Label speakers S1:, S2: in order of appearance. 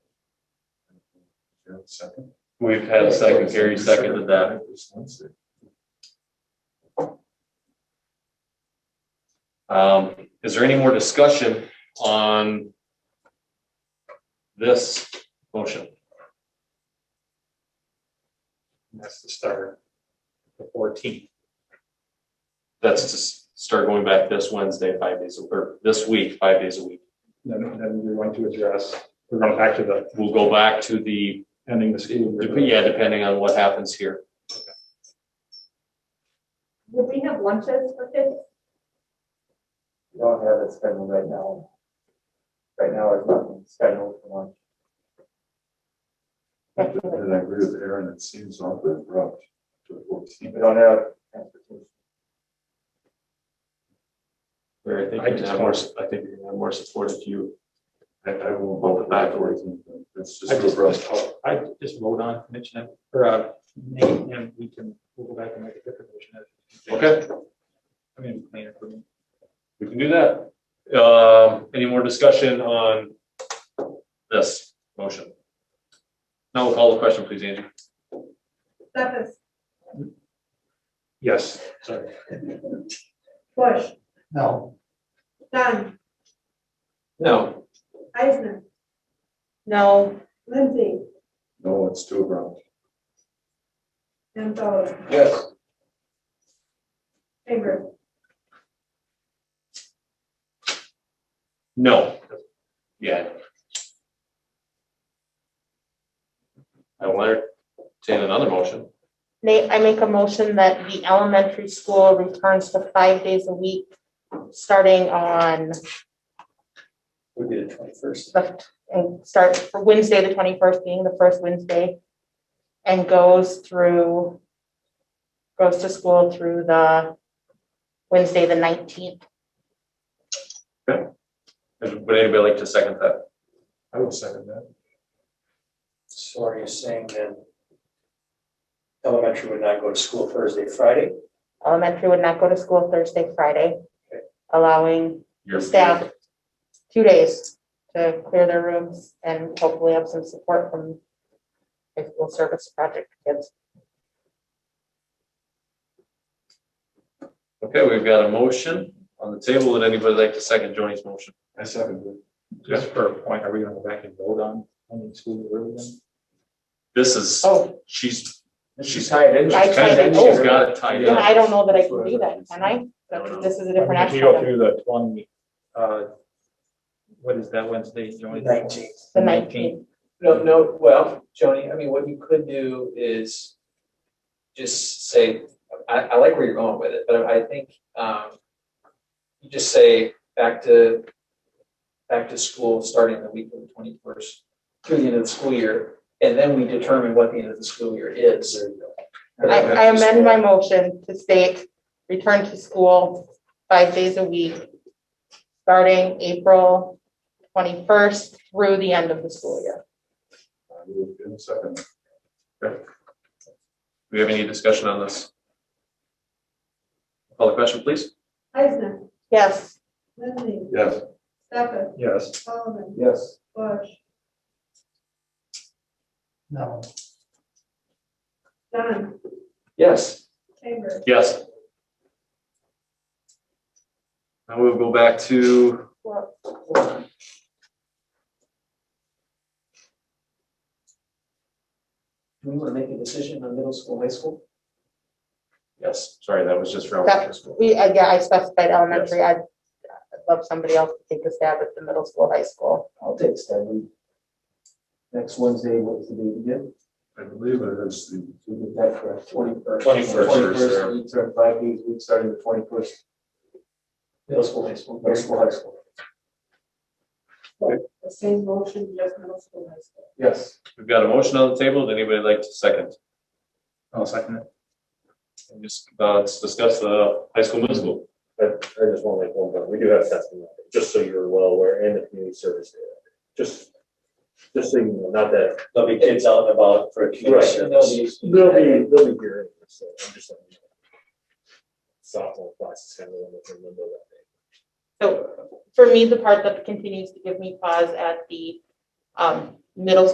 S1: Do you have a Second.
S2: We've had a second, Gary seconded that.
S1: This Wednesday.
S2: Um, is there any more discussion on this motion?
S3: That's the start. The fourteenth.
S2: That's to s- start going back this Wednesday, five days, or this week, five days a week.
S3: Then, then we're going to address, we're going back to the
S2: We'll go back to the,
S3: ending the school. year.
S2: yeah, depending on what happens here.
S4: Would we have lunches for kids?
S5: We don't have it scheduled right now. Right now, it's nothing scheduled for lunch.
S1: And I agree with Aaron, it seems awfully abrupt to the fourteen.
S5: We don't have transportation.
S2: Where I think
S3: I
S2: you
S3: just
S2: have more, I think you have more support if you,
S1: I, I will hold it back for it. It's just
S3: I
S1: too
S3: just,
S1: abrupt.
S3: I just vote on commission, or, uh, name, and we can, we'll go back and make a different motion.
S2: okay,
S3: I mean, cleaner for me.
S2: we can do that. Um, any more discussion on this motion? Now we'll call the question, please, Angie.
S4: Stefas,
S3: Yes, sorry.
S4: Bush,
S3: No.
S4: Dunn,
S2: No.
S4: Eisner. No. Lindsay,
S1: No, it's too abrupt.
S4: Gonzalez,
S2: Yes.
S4: Chambers,
S2: No. Yeah. I will entertain another motion.
S6: Nate, I make a motion that the elementary school returns to five days a week, starting on
S3: Would be the twenty-first.
S6: the, and start for Wednesday, the twenty-first being the first Wednesday. And goes through, goes to school through the Wednesday, the nineteenth.
S2: Would anybody like to second that?
S1: I will second that.
S5: So are you saying then elementary would not go to school Thursday, Friday?
S6: Elementary would not go to school Thursday, Friday, allowing
S2: Your-
S6: staff two days to clear their rooms and hopefully have some support from high school service project kids.
S2: Okay, we've got a motion on the table. Would anybody like to second Joni's motion?
S1: I second it.
S3: Just for a point, are we gonna go back and vote on ending school year early then?
S2: This is,
S6: Oh,
S2: she's, she's, she's
S5: tied in.
S6: I tied it.
S2: got it tied
S6: then
S2: up.
S6: I don't know that I can do that, can I?
S2: I don't know.
S6: This is a different
S3: If
S6: action.
S3: you go
S6: item.
S3: through the twenty, uh, what is that Wednesday, Joey?
S5: Nineteenth.
S6: The nineteenth.
S7: No, no, well, Joni, I mean, what you could do is just say, I, I like where you're going with it, but I think, um, you just say back to, back to school, starting the week of the twenty-first through the end of the school year, and then we determine what the end of the school year is.
S6: I, I amend my motion to state, return to school five days a week, starting April twenty-first through the end of the school year.
S1: I will give a second.
S2: Do we have any discussion on this? Call the question, please.
S4: Eisner,
S6: Yes,
S4: Lindsay,
S1: Yes.
S4: Stefas,
S3: Yes.
S4: Sullivan,
S5: Yes.
S4: Bush,
S5: No.
S4: Dunn,
S7: Yes.
S4: Chambers,
S2: Yes. Now we'll go back to
S6: well,
S7: Do we want to make a decision on middle school, high school?
S2: Yes, sorry, that was just for
S6: That-
S2: elementary school.
S6: we, uh, yeah, I specified elementary, I'd I'd love somebody else to take a stab at the middle school, high school.
S5: I'll take Stanley. Next Wednesday, what was the date again?
S1: I believe it is the,
S5: Is that correct? Twenty-first.
S2: 21st, yeah.
S5: We start five days, we started the twenty-first. Middle school, high school. Middle school, high school.
S4: the same motion, just middle school, high school.
S5: Yes.
S2: We've got a motion on the table. Would anybody like to second?
S3: I'll second it.
S2: And Just, uh, let's discuss the high school, middle school.
S8: I, I just want to make one point, we do have testing, out there, just so you're well aware, and the community service area, just, just so you know, not that. There'll be kids out and about for a
S7: community service.
S8: They'll be, they'll be here, so I'm just letting you know. Sophomore class is kind of in the limbo that day.
S6: So for me, the part that continues to give me pause at the, um, middle